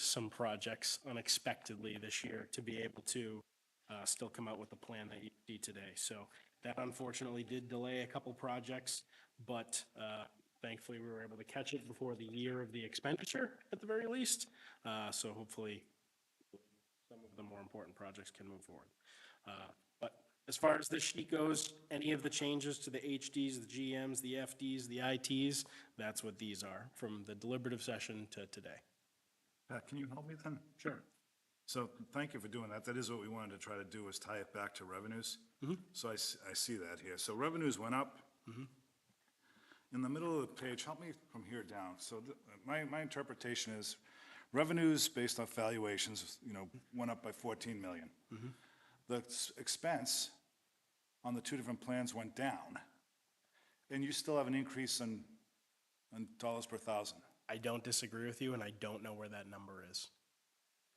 some projects unexpectedly this year to be able to uh, still come out with the plan that you see today. So that unfortunately did delay a couple projects, but uh, thankfully we were able to catch it before the year of the expenditure at the very least. Uh, So hopefully some of the more important projects can move forward. Uh, But as far as this sheet goes, any of the changes to the HDs, the GMs, the FDs, the ITs, that's what these are from the deliberative session to today. Pat, can you help me then? Sure. So thank you for doing that. That is what we wanted to try to do, is tie it back to revenues. So I, s- I see that here. So revenues went up. In the middle of the page, help me from here down. So th- my, my interpretation is revenues based off valuations, you know, went up by 14 million. The s- expense on the two different plans went down. And you still have an increase in, in dollars per thousand. I don't disagree with you, and I don't know where that number is.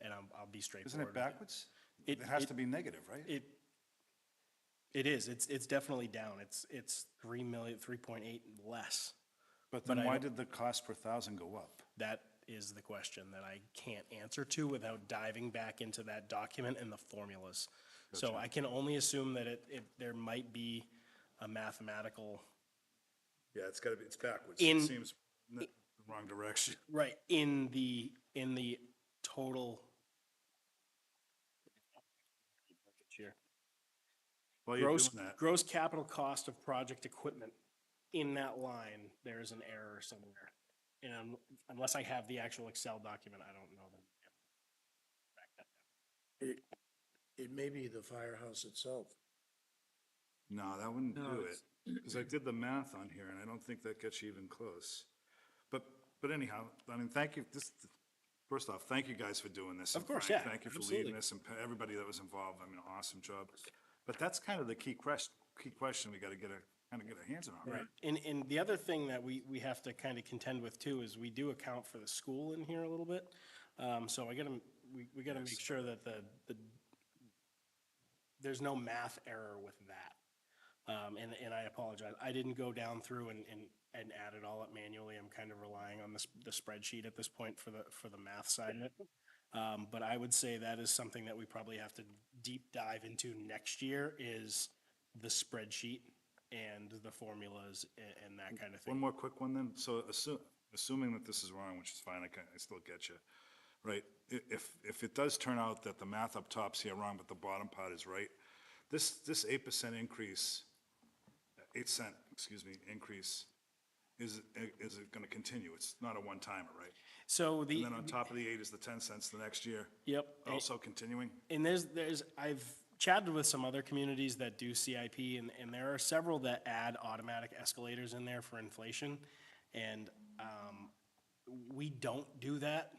And I'm, I'll be Isn't straightforward. it backwards? It- It has it- to be negative, right? It, it is, it's, it's definitely down. It's, it's three million, three point eight less. But then I why don't- did the cost per thousand go up? That is the question that I can't answer to without diving back into that document and the formulas. So I can only assume that it, it, there might be a mathematical, Yeah, it's gotta be, it's backwards. In- It seems n- the wrong direction. right, in the, in the total. Here. While you're Gross, doing that, gross capital cost of project equipment, in that line, there is an error somewhere. And un- unless I have the actual Excel document, I don't know them. It, it may be the firehouse itself. no, that wouldn't No, do it. Because I did the math on here and I don't think that gets you even close. But, but anyhow, I mean, thank you, this, first off, thank you guys for doing this. Of and course, Frank, yeah, Thank you for absolutely. leading this and pa- everybody that was involved. I mean, awesome job. But that's kind of the key question, key question we gotta get a, kind of get our hands on, right? And, and the other thing that we, we have to kind of contend with too is we do account for the school in here a little bit. Um, so I gotta, we, we gotta make sure that the, the, there's no math error with that. Um, and, and I apologize. I didn't go down through and, and, and add it all up manually. I'm kind of relying on this, the spreadsheet at this point for the, for the math side of it. Um, but I would say that is something that we probably have to deep dive into next year is the spreadsheet and the formulas and, and that kind of One thing. more quick one then. So assu- assuming that this is wrong, which is fine, I can, I still get you. Right, I- if, if it does turn out that the math up top's here wrong, but the bottom part is right, this, this eight percent increase, uh, eight cent, excuse me, increase, is, i- is it gonna continue? It's not a one-timer, right? So the, And then on top of the eight is the ten cents the next year, yep. also continuing? and there's there's I've chatted with some other communities that do CIP and, and there are several that add automatic escalators in there for inflation. And um, we don't do that.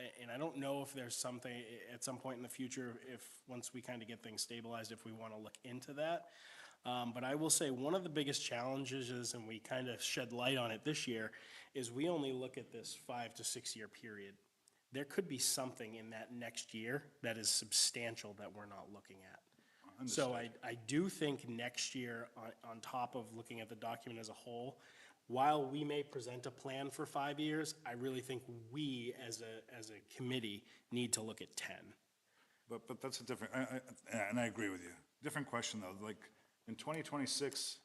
A- And I don't know if there's something i- at some point in the future, if, once we kind of get things stabilized, if we want to look into that. Um, but I will say, one of the biggest challenges is, and we kind of shed light on it this year, is we only look at this five to six year period. There could be something in that next year that is substantial that we're not looking at. So I, I do think next year, on, on top of looking at the document as a whole, while we may present a plan for five years, I really think we as a, as a committee need to look at ten. But, but that's a different, I, I, and I agree with you. Different question though, like, in twenty twenty-six,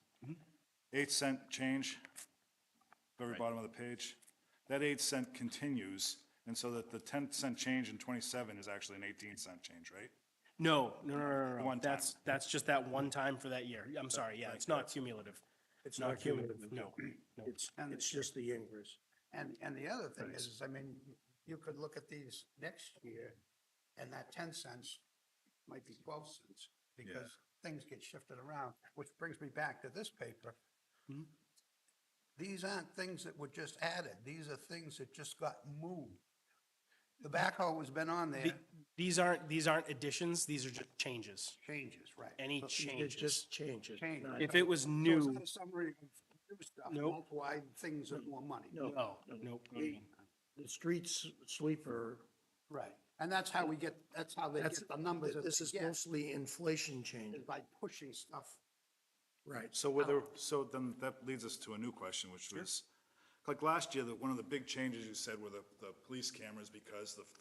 eight cent change, very bottom of the page. That eight cent continues, and so that the ten cent change in twenty-seven is actually an eighteen cent change, right? No, no, no, no, no, no. One time. That's, that's just that one time for that year. I'm sorry, yeah, it's not cumulative. It's not cumulative, no. no. It's, it's just the increase. And, and the other thing is, is I mean, you could look at these next year and that ten cents might be twelve cents because things get shifted around, which brings me back to this paper. These aren't things that were just added. These are things that just got moved. The backhoe has been on there, The- These aren't, these aren't additions, these are just changes, changes, right? any It changes. just changes. Change. not- If it was So it's new, not a Summary of new stuff, Nope. multiply things at more money. No, oh, no, We- the streets sweeper, Right. And that's how we get, that's how they that's, get the numbers that this they is get, mostly inflation change. is by pushing stuff Right. So whether, so then that leads us to a new question, which was, like last year, that one of the big changes you said were the, the police cameras because the,